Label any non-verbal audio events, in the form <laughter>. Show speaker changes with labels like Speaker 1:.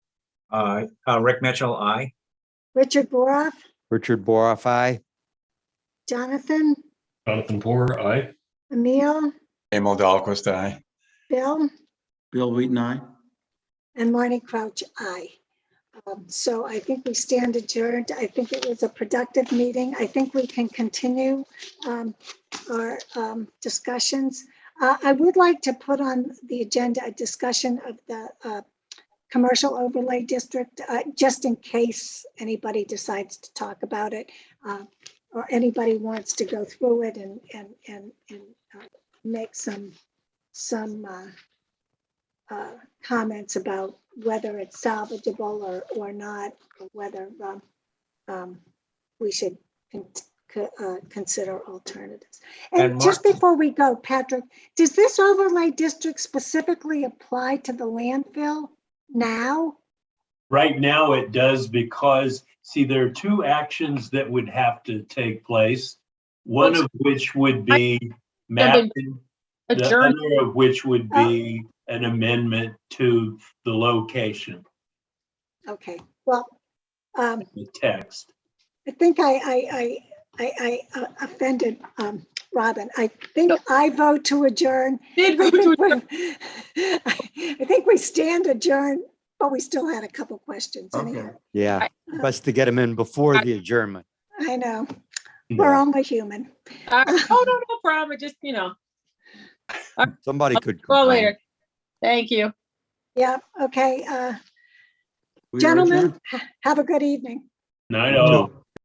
Speaker 1: Aye. Uh, Rick Mitchell, aye.
Speaker 2: Richard Boroff,
Speaker 3: Richard Boroff, aye.
Speaker 2: Jonathan,
Speaker 4: Jonathan Porter, aye.
Speaker 2: Emil,
Speaker 5: Emil Dahlquist, aye.
Speaker 2: Bill,
Speaker 6: Bill Wheaton, aye.
Speaker 2: and Marty Crouch, aye. Um, So I think we stand adjourned. I think it was a productive meeting. I think we can continue um, our um, discussions. Uh, I would like to put on the agenda a discussion of the uh, commercial overlay district, uh, just in case anybody decides to talk about it uh, or anybody wants to go through it and, and, and, and uh, make some, some uh, uh, comments about whether it's salvageable or, or not, or whether um, um, we should con- co- uh, consider alternatives.
Speaker 1: And
Speaker 2: And
Speaker 1: Mar-
Speaker 2: just before we go, Patrick, does this overlay district specifically apply to the landfill now?
Speaker 7: Right now, it does because, see, there are two actions that would have to take place. One of which would be mapping, the
Speaker 8: Adjourn,
Speaker 7: other of which would be an amendment to the location,
Speaker 2: Okay, well, um,
Speaker 7: the text.
Speaker 2: I think I, I, I, I, I uh, offended, um, Robin. I think I vote to adjourn.
Speaker 8: did
Speaker 2: I
Speaker 8: vote
Speaker 2: <laughs>
Speaker 8: to
Speaker 2: think
Speaker 8: adjourn.
Speaker 2: we- I think we stand adjourned, but we still had a couple questions
Speaker 6: Okay.
Speaker 2: anyhow.
Speaker 3: Yeah, best to get him in before the adjournment.
Speaker 2: I know, we're only human.
Speaker 8: Uh, Oh, no, no problem. Just, you know,
Speaker 3: Somebody could.
Speaker 8: go
Speaker 3: complain.
Speaker 8: later. Thank you.
Speaker 2: Yeah, okay, uh,
Speaker 6: We are
Speaker 2: gentlemen,
Speaker 6: adjourned.
Speaker 2: ha- have a good evening.
Speaker 7: Nine oh.